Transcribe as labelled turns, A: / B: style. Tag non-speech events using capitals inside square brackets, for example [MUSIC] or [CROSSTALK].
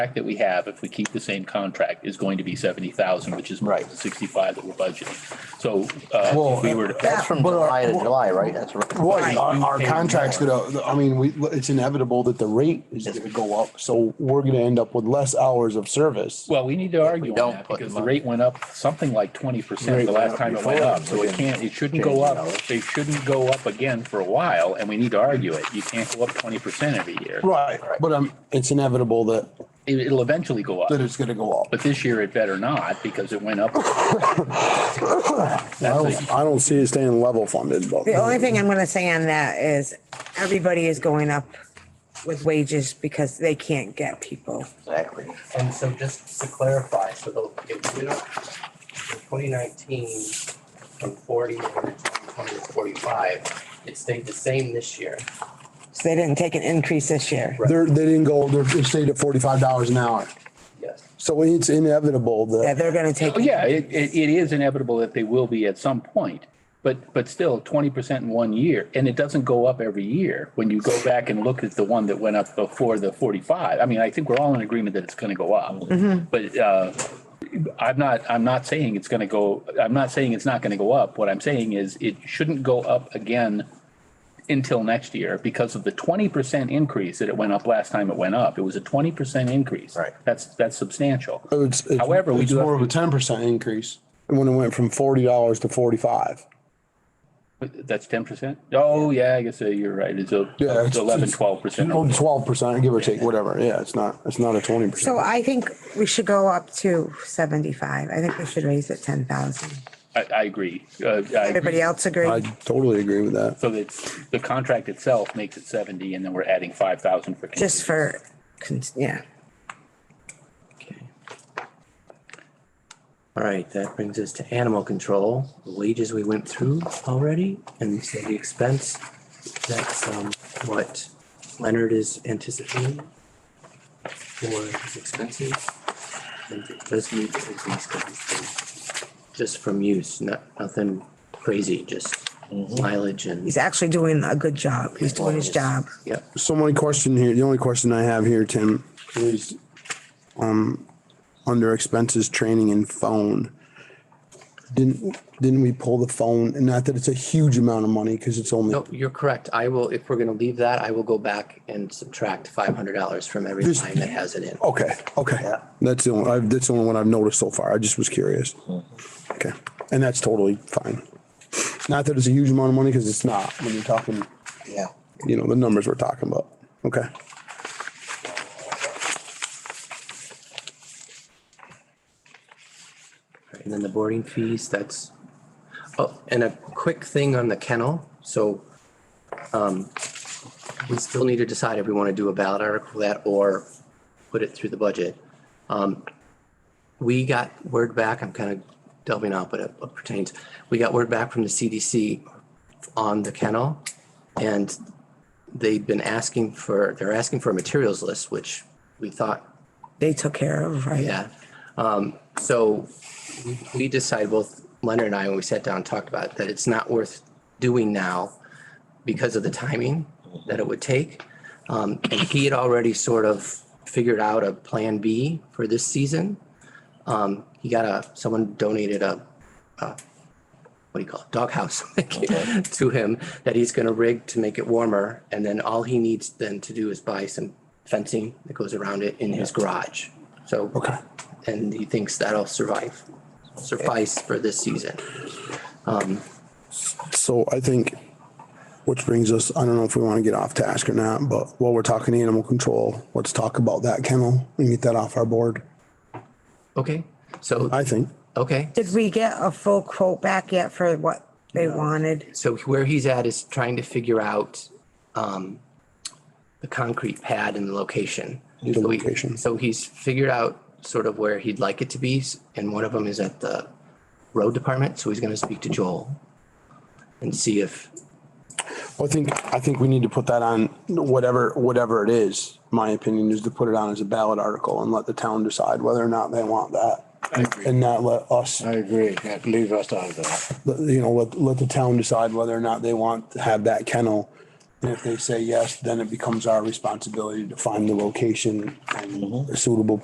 A: contract that we have, if we keep the same contract, is going to be seventy thousand, which is more than
B: Right.
A: sixty-five that we're budgeting. So, uh,
B: Well,
A: if we were, to-
B: That's from July to July, right? That's
C: Right,
B: right.
C: our, our
A: Right.
C: contract's gonna, I mean, we, it's inevitable that the rate is gonna go up, so we're gonna end up with less hours of service.
A: well, we need to argue on
B: don't
A: that
B: put
A: because
B: them
A: the
B: up.
A: rate went up something like twenty percent
C: Rate
A: the
C: went
A: last
C: up
A: time it
C: before.
A: went up. So it can't, it shouldn't go
B: Change
A: up.
B: hours.
A: They shouldn't go up again for a while, and we need to argue it. You can't go up twenty percent every year.
C: Right, but um, it's inevitable that,
A: It- It'll eventually go up,
C: that it's gonna go up.
A: but this year it better not because it went up.
C: I
A: That's a-
C: don't, I don't see it staying level funded, but.
D: The only thing I'm gonna say on that is everybody is going up with wages because they can't get people.
B: Exactly.
E: And so just to clarify, so the, if we don't, in twenty nineteen, from forty to twenty to forty-five, it stayed the same this year.
D: So they didn't take an increase this year.
C: They're, they didn't go, they're, they stayed at forty-five dollars an hour,
E: Yes.
C: so it's inevitable
D: Yeah,
C: that,
D: they're gonna take.
A: Oh, yeah, it, it, it is inevitable that they will be at some point, but, but still twenty percent in one year, and it doesn't go up every year. When you go back and look at the one that went up before the forty-five, I mean, I think we're all in agreement that it's gonna go up. But, uh, I'm not, I'm not saying it's gonna go, I'm not saying it's not gonna go up. What I'm saying is it shouldn't go up again until next year because of the twenty percent increase that it went up last time it went up. It was a twenty percent increase.
B: Right.
A: That's, that's substantial.
C: it's, it's
A: However, we
C: it's
A: do have
C: more of a ten percent increase when it went from forty dollars to forty-five.
A: That's ten percent? Oh, yeah, I guess uh, you're right. It's a
C: Yeah,
A: it's
C: it's-
A: eleven,
C: it's-
A: twelve percent.
C: Oh, Twelve percent, give or take, whatever, yeah, it's not, it's not a twenty
D: So
C: percent.
D: I think we should go up to seventy-five. I think we should raise it ten thousand.
A: I, I agree. Uh, I agree.
D: Everybody else
C: I
D: agree?
C: totally agree with that.
A: So that's, the contract itself makes it seventy and then we're adding five thousand for. contingency.
D: Just for, cons- yeah.
E: All right, that brings us to animal control, the wages we went through already, and so the expense, that's um what Leonard is anticipating for his expenses. And it does need to increase, but it's, um, just from use, not, nothing crazy, just mileage and,
D: He's actually doing a good job. He's doing his job.
E: yep.
C: So my question here, the only question I have here, Tim, is, um, under expenses, training and phone. Didn't, didn't we pull the phone? And not that it's a huge amount of money, cause it's only,
E: No, you're correct. I will, if we're gonna leave that, I will go back and subtract five hundred dollars from every
C: This-
E: line that has it in.
C: okay, okay. That's the only, I've- that's the only one I've noticed so far. I just was curious. Okay, and that's totally fine. Not that it's a huge amount of money, cause it's not, when you're talking,
B: Yeah.
C: you know, the numbers we're talking about. Okay.
E: And then the boarding fees, that's, oh, and a quick thing on the kennel, so um, we still need to decide if we want to do a ballot article for that or put it through the budget. Um, We got word back, I'm kind of delving out, but it pertains, we got word back from the CDC on the kennel. And they've been asking for, they're asking for a materials list, which we thought
D: They took care of, right?
E: yeah. Um, so we- we decided, both Leonard and I, when we sat down and talked about it, that it's not worth doing now because of the timing that it would take. Um, and he had already sort of figured out a plan B for this season. Um, he got a, someone donated a, a- what do you call it, doghouse [LAUGHS] to him that he's gonna rig to make it warmer. And then all he needs then to do is buy some fencing that goes around it in his garage. So. Okay. And he thinks that'll survive, suffice for this season.
C: So I think, which brings us, I don't know if we want to get off task or not, but while we're talking animal control, let's talk about that kennel and get that off our board,
E: Okay, so,
C: I think.
E: okay.
D: Did we get a full quote back yet for what they wanted?
E: so where he's at is trying to figure out um the concrete pad and the location.
C: The
E: So he-
C: location.
E: So he's figured out sort of where he'd like it to be, s- and one of them is at the road department, so he's gonna speak to Joel and see if,
C: I think, I think we need to put that on whatever, whatever it is. My opinion is to put it on as a ballot article and let the town decide whether or not they want that. And not let us,
F: I agree. Yeah, Leave us out of that.
C: you know, let, let the town decide whether or not they want to have that kennel And if they say yes, then it becomes our responsibility to find the location and a suitable